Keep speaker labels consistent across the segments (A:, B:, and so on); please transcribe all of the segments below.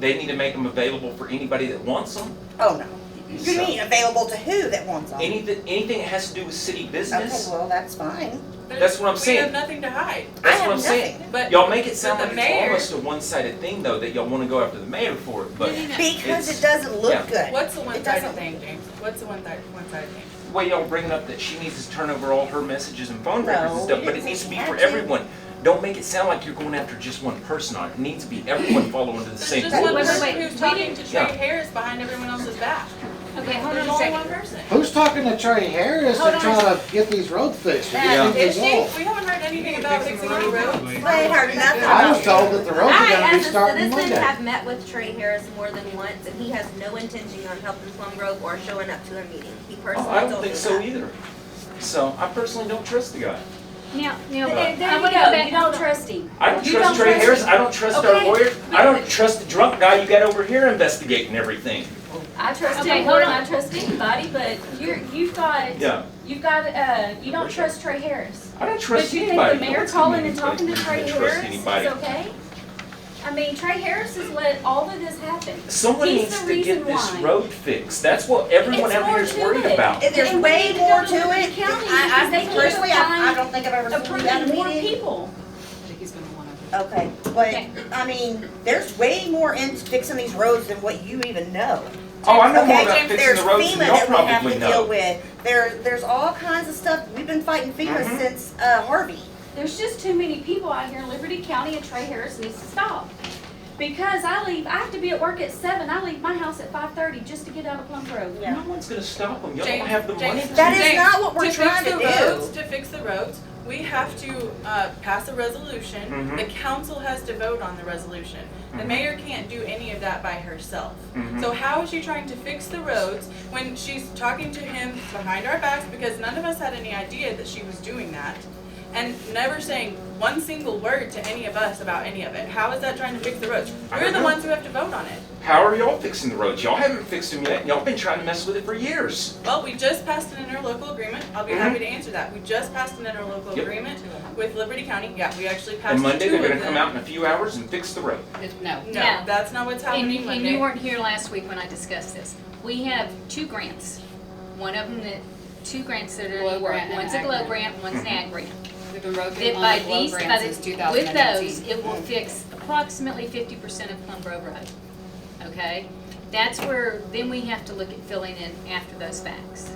A: They need to make them available for anybody that wants them.
B: Oh, no. You mean available to who that wants them?
A: Anything, anything that has to do with city
B: Okay,
A: business,
B: well, that's fine.
A: That's what I'm saying.
C: We have nothing to hide,
B: I
A: that's what
B: have
A: I'm saying.
B: nothing.
C: but
A: Y'all make it sound
C: But
A: like
C: the
A: it's
C: mayor-
A: almost a one-sided thing though, that y'all wanna go after the mayor for it, but
C: No, no, no.
B: Because
A: It's-
B: it doesn't
A: yeah.
B: look good.
C: what's the
B: It
C: one-sided
B: doesn't-
C: thing, James? What's the one-sided, one-sided thing?
A: the way y'all bringing up that she needs to turn over all her messages and phone
B: No,
A: records and stuff,
B: we
A: but it
B: didn't
A: needs
B: say
A: to be
B: she
A: for
B: had to.
A: everyone. Don't make it sound like you're going after just one person on it. It needs to be everyone following the
C: There's
A: same
C: just one
B: Wait,
A: rules.
B: wait,
C: person
D: wait.
C: who's talking to Trey
A: Yeah.
C: Harris behind everyone else's back.
D: Okay, hold
C: There's
D: on a
C: only one
D: second.
C: person.
E: Who's talking to Trey Harris
D: Hold
E: to
D: on.
E: try to get these road fixed?
D: Yeah.
E: Because
C: Is
E: they
C: she?
E: won't.
C: We haven't heard anything about fixing any roads.
B: I ain't heard nothing
E: I
B: about
E: was told that the roads are
F: I,
E: gonna be
F: as a
E: starting
F: citizen,
E: Monday.
F: have met with Trey Harris more than once, and he has no intention on helping Plum Grove or showing up to a meeting. He personally told me
A: Oh,
F: that.
A: I don't think so either. So I personally don't trust the guy.
D: Now, now,
A: There-
D: I wanna go back, you don't trust him.
A: I don't
D: You
A: trust
D: don't
A: Trey
D: trust
A: Harris.
D: him.
A: I don't trust our
D: Okay.
A: lawyer. I don't trust the drunk guy you got over here investigating everything.
G: I trust
D: Okay,
G: him more
D: hold
G: than
D: on.
G: I trust anybody, but you're, you've got,
A: Yeah,
G: you've got, uh, you don't
A: Where's
G: trust Trey Harris.
A: I don't
G: But
A: trust
G: you
A: anybody.
G: think the mayor
A: What's
G: calling and
A: anybody?
G: talking to
A: You
G: Trey
A: don't
G: Harris
A: trust
G: is
A: anybody.
G: okay? I mean, Trey Harris has let all of this happen.
A: Someone
G: He's
A: needs
G: the
A: to get
G: reason
A: this
G: why.
A: road fixed. That's what everyone
G: It's
A: out here is
G: more to
A: worried
G: it.
A: about.
B: If There's
G: And
B: way
G: we
B: more
G: don't
B: to
G: look
B: it.
G: at county
B: I, I
G: because they can't
B: personally, I, I
G: find
B: don't think I've ever seen that
G: Approving more
B: meeting.
G: people.
B: Okay,
D: Okay.
B: but, I mean, there's way more into fixing these roads than what you even know.
A: Oh, I know more
B: Okay,
A: about fixing the roads than y'all
B: There's FEMA that we
A: probably
B: have to deal
A: know.
B: with. There, there's all kinds of stuff. We've been fighting FEMA
A: Mhm.
B: since uh, Harvey.
G: There's just too many people out here in Liberty County and Trey Harris needs to stop. Because I leave, I have to be at work at seven, I leave my house at five-thirty just to get out of Plum Grove.
B: Yeah.
A: No one's gonna stop them. Y'all don't
C: James-
A: have the money.
C: James-
A: to-
B: That is
C: James,
B: not what we're
C: to fix
B: trying
C: the
B: to
C: roads,
B: do.
C: to fix the roads, we have to, uh, pass a resolution.
A: Mhm.
C: The council has to vote on the resolution. The
A: Mhm.
C: mayor can't do any of that by herself.
A: Mhm.
C: So how is she trying to fix the roads when she's talking to him behind our backs because none of us had any idea that she was doing that? And never saying one single word to any of us about any of it. How is that trying to fix the roads?
A: I
C: We're
A: don't
C: the
A: know.
C: ones who have to vote on it.
A: How are y'all fixing the roads? Y'all haven't fixed them yet. Y'all been trying to mess with it for years.
C: Well, we just passed an interlocal agreement. I'll be
A: Mhm.
C: happy to
D: Mm-hmm.
C: answer that. We just passed an interlocal
A: Yep.
C: agreement with Liberty County. Yeah, we actually passed two
A: And
C: of them.
A: Monday, they're gonna come out in a few hours and fix the road.
D: No.
C: No, that's not what's
D: And
C: happening
D: you, and
C: Monday.
D: you weren't here last week when I discussed this. We have two grants. One of them that, two grants that are
H: Glow
D: in the work.
H: grant and
D: One's a
H: ag
D: glow
H: grant.
D: grant, one's an ag grant.
H: We've been broken
D: That
H: on
D: by
H: the glow
D: these, by
H: grant since two
D: the,
H: thousand Mm-hmm.
D: with
H: and
D: those,
H: eighteen.
D: it will fix approximately fifty percent of Plum Grove Road. Okay? That's where, then we have to look at filling in after those facts.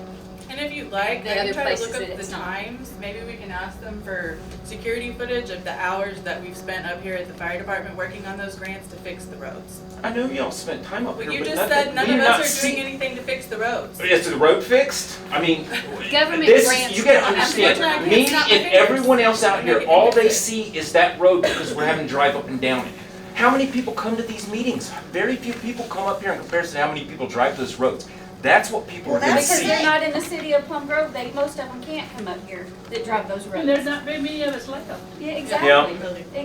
C: And if you'd like,
D: The
C: I
D: other
C: can try to
D: places
C: look
D: that
C: up the
D: it's not.
C: times, maybe we can ask them for security footage of the hours that we've spent up here at the fire department working on those grants to fix the roads.
A: I know y'all spent time up
C: But
A: here,
C: you
A: but
C: just
A: nothing-
C: said none
A: do you
C: of
A: not
C: us are
A: see-
C: doing anything to fix the roads.
A: Is the road fixed? I mean,
D: Government
A: this,
D: grants.
A: you gotta
C: That's
A: understand,
C: what
A: me
C: I'm saying.
A: and everyone else out here,
C: Everything
A: all they
C: fixed.
A: see is that road because we're having to drive up and down it. How many people come to these meetings? Very few people come up here in comparison to how many people drive those roads. That's what people are
B: Well,
A: gonna
B: that's
C: Because
A: see.
C: they're not in the city of Plum Grove, they, most of them can't come up here that drive those roads.
G: And there's not very many of us left.
C: Yeah,
A: exactly.
C: exactly,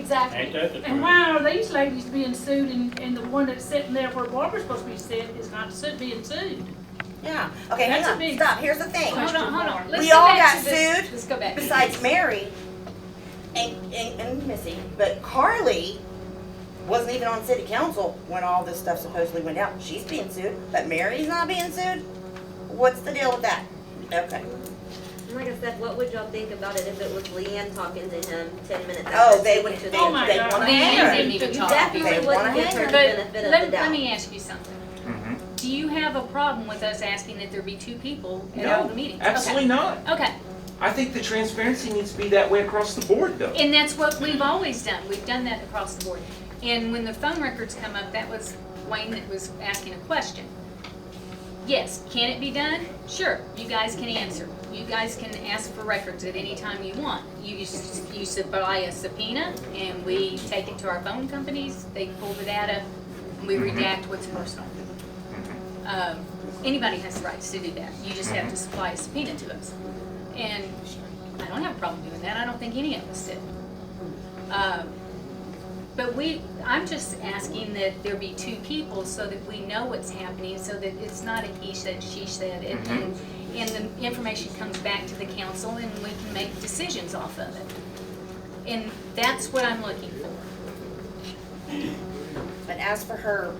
C: exactly.
G: And why are these ladies being sued and, and the one that's sitting there where Barbara's supposed to be sitting is not su- being sued?
B: Yeah, okay, hang
G: That's a
B: on,
G: big-
B: stop, here's the thing.
D: Hold on, hold on. Let's
B: We
D: go
B: all
D: back
B: got
D: to this-
B: sued
D: Let's go back.
B: besides Mary and, and, and Missy, but Carly wasn't even on city council when all this stuff supposedly went down. She's being sued, but Mary's not being sued? What's the deal with that? Okay.
F: And Like I said, what would y'all think about it if it was Leanne talking to him ten minutes after?
B: Oh, they
F: she
B: would,
F: went
B: they,
F: to
B: they
F: the-
G: Oh my God.
B: wanna
D: Leanne
B: hang her.
D: didn't even
F: You
D: talk.
B: They
F: definitely
B: wanna
F: wouldn't give her
B: hang
F: the
D: But
F: benefit
D: let,
F: of the
D: let
F: doubt.
D: me ask you something.
A: Mhm.
D: Do you have a problem with us asking that there be two people at all the
A: No,
D: meetings? Okay.
A: absolutely not.
D: Okay,
A: I think the transparency needs to be that way across the board though.
D: and that's what we've always done, we've done that across the board. And when the phone records come up, that was Wayne that was asking a question. Yes, can it be done? Sure, you guys can answer. You guys can ask for records at any time you want. You, you s- you supply a subpoena, and we take it to our phone companies, they pull the data, and we
A: Mhm.
D: redact what's personal.
A: Mm-hmm.
D: Um, Anybody has the rights to do that, you just have to supply a subpoena to us. And I don't have a problem doing that, I don't think any of us did. Um, But we, I'm just asking that there be two people so that we know what's happening, so that it's not a he said, she said, and, and- and the information comes back to the council and we can make decisions off of it. And that's what I'm looking for.
B: But and ask for her